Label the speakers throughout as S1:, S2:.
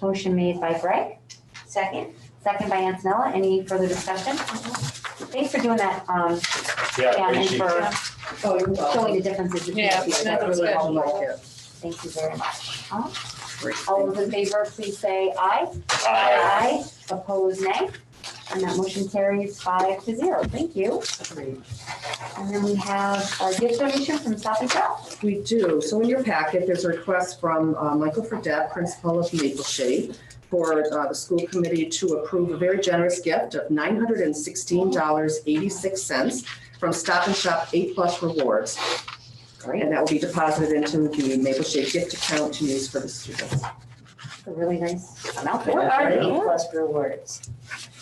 S1: Motion made by Greg,
S2: Second?
S1: second by Antonella. Any further discussion? Thanks for doing that, um,
S3: Yeah,
S1: Dan,
S3: great
S1: and
S3: sheet.
S1: for
S4: Oh, you're
S1: showing the differences between
S5: Yeah,
S1: the two.
S5: that's
S1: Really
S5: good.
S1: helpful. Thank you very much. All all those in favor, please say aye.
S3: Aye.
S1: Opposed, nay. And that motion carries five to zero. Thank you. And then we have a gift donation from Stop and Shop.
S4: We do. So in your packet, there's a request from uh, Michael Fredette, principal of Maple Shade, for uh, the school committee to approve a very generous gift of $916.86 from Stop and Shop Eight Plus Rewards. And that will be deposited into the Maple Shade gift account to use for the students.
S1: A really nice amount.
S2: What are
S4: right.
S2: the A plus rewards?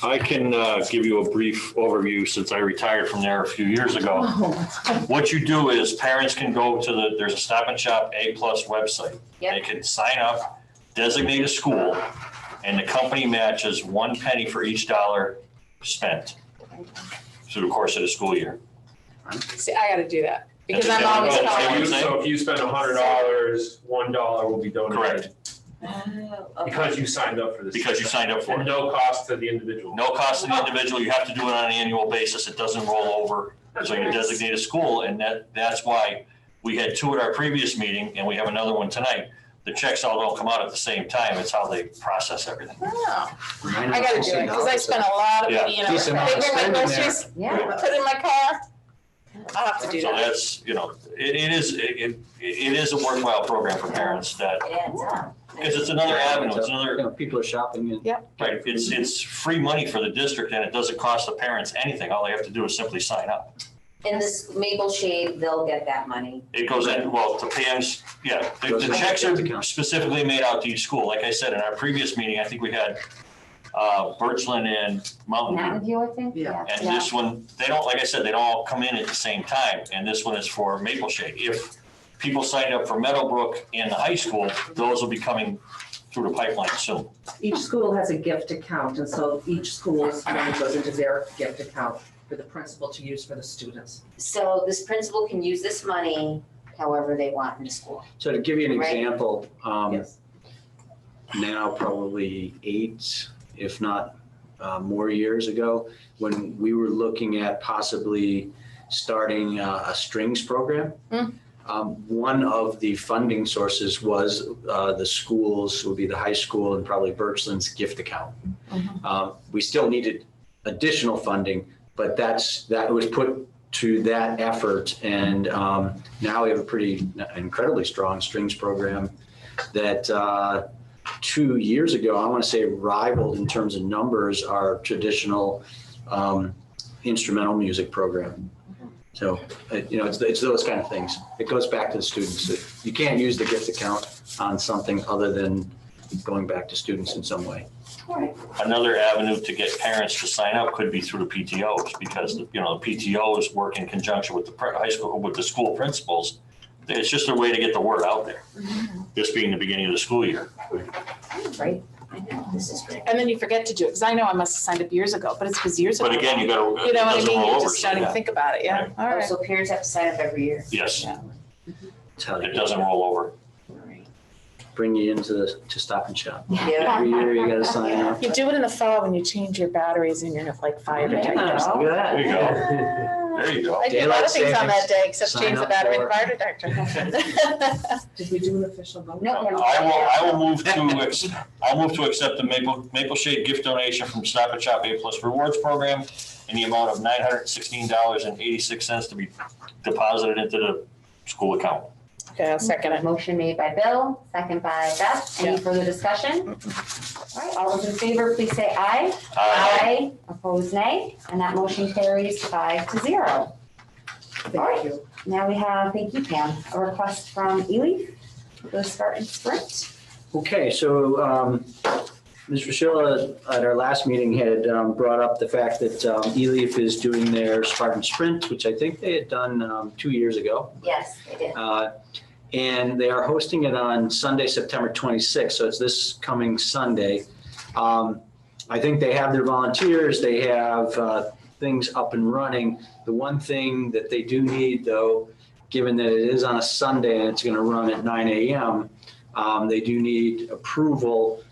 S3: I can uh, give you a brief overview since I retired from there a few years ago.
S5: Oh,
S3: What you do is parents can go to the, there's a Stop and Shop A Plus website.
S1: Yep.
S3: They can sign up, designate a school, and the company matches one penny for each dollar spent through the course of the school year.
S5: See, I gotta do that, because
S3: That's
S5: I'm
S3: okay. Oh,
S5: always
S6: So
S3: okay.
S5: calling.
S6: you- So if you spend a hundred dollars, one dollar will be
S3: Correct,
S6: donated.
S2: Oh,
S6: Because you signed up for this.
S3: because you signed up for
S6: And
S3: it.
S6: no cost to the individual.
S3: No cost to the individual, you have to do it on an annual basis, it doesn't roll over. So you designate a school, and that, that's why we had two at our previous meeting, and we have another one tonight. The checks all don't come out at the same time, it's how they process everything.
S5: Oh, I gotta do it, because I spent a lot of
S3: Yeah.
S5: money, and I
S7: Decent amount of
S5: bring my
S7: spending there.
S5: groceries,
S1: Yeah.
S5: put it in my car. I'll have to do
S3: So
S5: that.
S3: that's, you know, it, it is, it, it- it is a worthwhile program for parents that,
S2: It adds up.
S3: because it's another avenue, it's another,
S7: You know, people are shopping and.
S3: right, it's, it's free money for the district, and it doesn't cost the parents anything, all they have to do is simply sign up.
S2: In this Maple Shade, they'll get that money.
S3: It goes in, well, the PMs, yeah, the
S7: Goes
S3: the
S7: in
S3: checks
S7: the
S3: are
S7: account.
S3: specifically made out to each school. Like I said, in our previous meeting, I think we had uh, Birchland and Mountain View.
S1: Mountain View, I think.
S4: Yeah.
S3: And this one, they don't, like I said, they don't all come in at the same time, and this one is for Maple Shade. If people signed up for Meadowbrook and the high school, those will be coming through the pipeline soon.
S4: Each school has a gift account, and so each school's money goes into their gift account for the principal to use for the students.
S2: So this principal can use this money however they want in the school.
S7: So to give you an
S2: Right.
S7: example, um,
S4: Yes.
S7: now probably eight, if not uh, more years ago, when we were looking at possibly starting uh, a strings program.
S5: Mm.
S7: Um, one of the funding sources was uh, the schools, would be the high school and probably Birchland's gift account. Um, we still needed additional funding, but that's, that was put to that effort. And um, now we have a pretty incredibly strong strings program that uh, two years ago, I want to say rivaled in terms of numbers our traditional um, instrumental music program. So, uh, you know, it's, it's those kind of things. It goes back to the students. You can't use the gift account on something other than going back to students in some way.
S3: Another avenue to get parents to sign up could be through the PTOs, because, you know, the PTOs work in conjunction with the pri- high school, with the school principals. It's just a way to get the word out there, this being the beginning of the school year.
S2: Right. I know, this is great.
S5: And then you forget to do it, because I know I must have signed up years ago, but it's because years ago.
S3: But again, you gotta,
S5: You
S3: it
S5: know what I
S3: doesn't
S5: mean,
S3: roll
S5: you're
S3: over.
S5: just
S3: so
S5: starting to
S3: yeah.
S5: think about it, yeah, all
S2: Oh,
S5: right.
S2: So parents have to sign up every year.
S3: Yes,
S7: That's how
S3: it
S7: they
S3: doesn't roll over.
S7: bring you into the, to Stop and Shop.
S2: Yeah.
S7: Every year you gotta sign up.
S5: You do it in the fall when you change your batteries and you're like fire detectors.
S4: Look at that.
S3: There you go, there you go.
S5: I did a lot of things on that day except
S7: Sign
S5: change the
S7: up
S5: battery in the
S7: for-
S5: fire detector.
S4: Did we do an official vote?
S1: No,
S3: I will, I will move to, ex- I'll move to accept the Maple, Maple Shade gift donation from Stop and Shop A Plus Rewards Program in the amount of nine hundred sixteen dollars and eighty-six cents to be deposited into the school account.
S5: Okay, I'll second it.
S1: Motion made by Bill, second by Beth. Any
S5: Yeah.
S1: further discussion? All right, all those in favor, please say aye.
S3: Aye.
S1: Opposed, nay. And that motion carries five to zero.
S4: Thank you.
S1: Now we have, thank you, Pam, a request from Ely for the Start and Sprint.
S7: Okay, so um, Ms. Rochella, at our last meeting, had um, brought up the fact that um, ELEAF is doing their Spartan Sprint, which I think they had done um, two years ago.
S2: Yes, they did.
S7: Uh, And they are hosting it on Sunday, September 26th, so it's this coming Sunday. Um, I think they have their volunteers, they have uh, things up and running. The one thing that they do need, though, given that it is on a Sunday and it's going to run at 9 AM, um, they do need approval